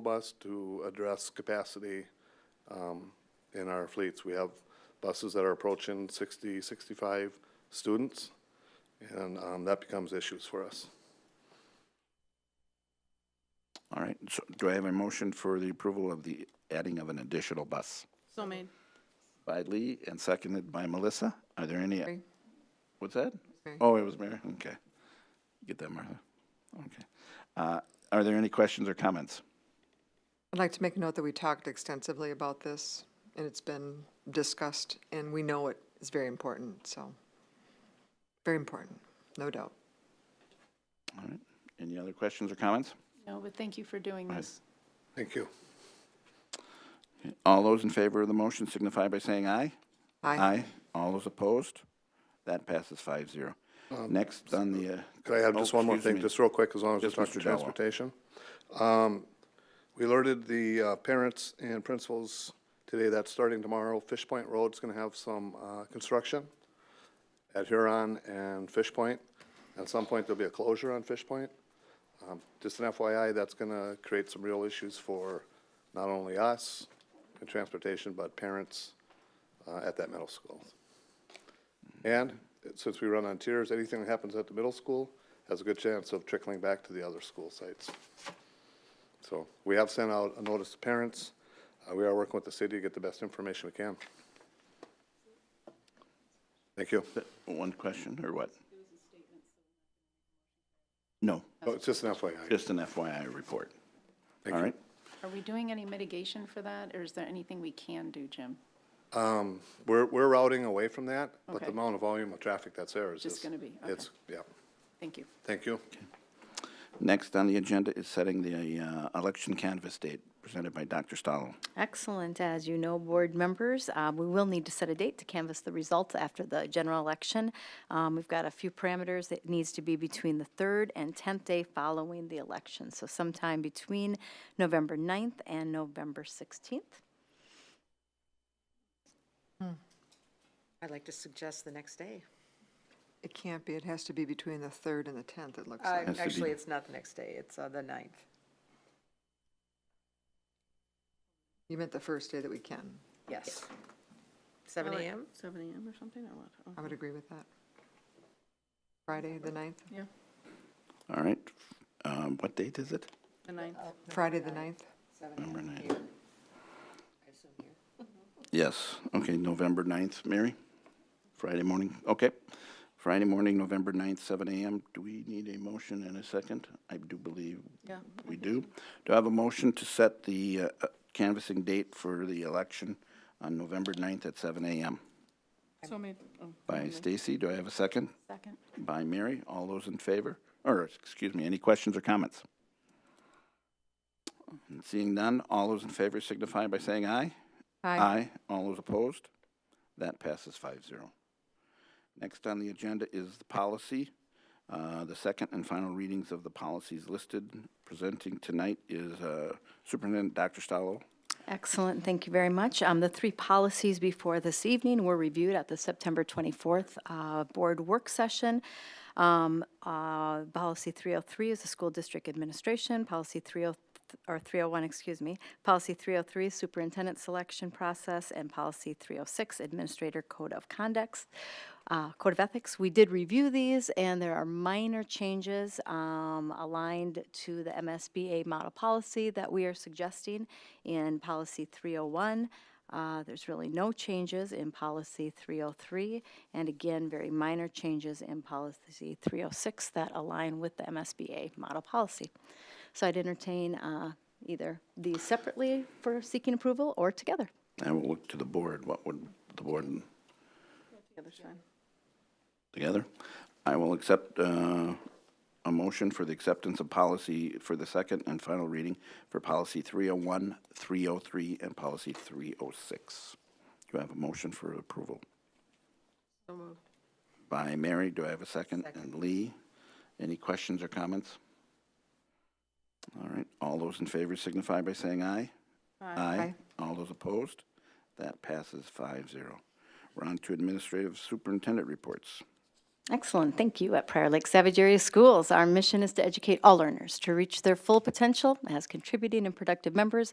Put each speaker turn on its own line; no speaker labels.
bus to address capacity um, in our fleets. We have buses that are approaching 60, 65 students, and um, that becomes issues for us.
All right, so do I have a motion for the approval of the adding of an additional bus?
So made.
By Lee and seconded by Melissa. Are there any,
Mary.
what's that?
Mary.
Oh, it was Mary, okay. Get that, Martha. Okay. Uh, Are there any questions or comments?
I'd like to make a note that we talked extensively about this, and it's been discussed, and we know it is very important, so. Very important, no doubt.
All right, any other questions or comments?
No, but thank you for doing this.
Thank you.
All those in favor of the motion signify by saying aye.
Aye.
All those opposed? That passes five zero. Next on the. uh,
Could Um, I have
oh,
just one more
excuse
thing,
me.
just real quick, as long as we're
Yes,
talking
Mr. Jallo.
transportation? Um, We alerted the uh, parents and principals today that starting tomorrow, Fish Point Road's gonna have some uh, construction at Huron and Fish Point. At some point, there'll be a closure on Fish Point. Um, Just an FYI, that's gonna create some real issues for not only us in transportation, but parents uh, at that middle school. And since we run on tiers, anything that happens at the middle school has a good chance of trickling back to the other school sites. So we have sent out a notice to parents. Uh, We are working with the city to get the best information we can. Thank you.
One question, or what? No,
Oh, It's just an FYI.
just an FYI report.
Thank
All
you.
right,
Are we doing any mitigation for that, or is there anything we can do, Jim?
We're, we're routing away from that, but
Okay.
the amount of volume of traffic that's there is
Just
just.
gonna be, okay.
It's, yeah.
Thank you.
Thank you.
next on the agenda is setting the uh, election canvas date presented by Dr. Stalo.
Excellent. As you know, board members, uh, we will need to set a date to canvass the results after the general election. Um, We've got a few parameters that needs to be between the third and 10th day following the election. So sometime between November 9th and November 16th.
I'd like to suggest the next day.
It can't be, it has to be between the third and the tenth, it looks
Uh,
like.
Has to be-
Actually, it's not the next day, it's uh, the ninth.
You meant the first day that we can.
Yes. Seven
Or like
AM?
Uh, Seven AM or something, or what? Oh,
I would agree with that. Friday, the ninth,
Yeah,
All right, um, what date is it?
the ninth.
Friday, the ninth.
November 9th. Yes, okay, November 9th, Mary? Friday morning, okay. Friday morning, November 9th, seven AM. Do we need a motion and a second? I do believe
Yeah.
we do. Do I have a motion to set the uh, uh, canvassing date for the election on November 9th at seven AM?
So made. Oh,
By Stacy, do I have a second?
Second?
By Mary, all those in favor? Or, excuse me, any questions or comments? Seeing none, all those in favor signify by saying aye.
Hi.
Aye. All those opposed? That passes 5-0. Next on the agenda is the policy. Uh, The second and final readings of the policies listed. Presenting tonight is uh, Superintendent Dr. Stalo.
Excellent, thank you very much. Um, The three policies before this evening were reviewed at the September 24th uh, Board Work Session. Um, uh, Policy 303 is the School District Administration, Policy 30, or 301, excuse me, Policy 303 is Superintendent Selection Process, and Policy 306 Administrator Code of Conducts, uh, Code of Ethics. We did review these, and there are minor changes um, aligned to the MSBA model policy that we are suggesting in Policy 301. Uh, There's really no changes in Policy 303, and again, very minor changes in Policy 306 that align with the MSBA model policy. So I'd entertain uh, either these separately for seeking approval or together.
I will look to the board. What would the board
The other's fine.
together? I will accept uh, a motion for the acceptance of policy for the second and final reading for Policy 301, 303, and Policy 306. Do I have a motion for approval?
So moved.
By Mary, do I have a second? And Lee, any questions or comments? All right, all those in favor signify by saying aye. Aye. All those opposed? That passes 5-0. We're on to administrative superintendent reports.
Excellent, thank you. At Prior Lake Savage Area Schools, our mission is to educate all learners to reach their full potential as contributing and productive members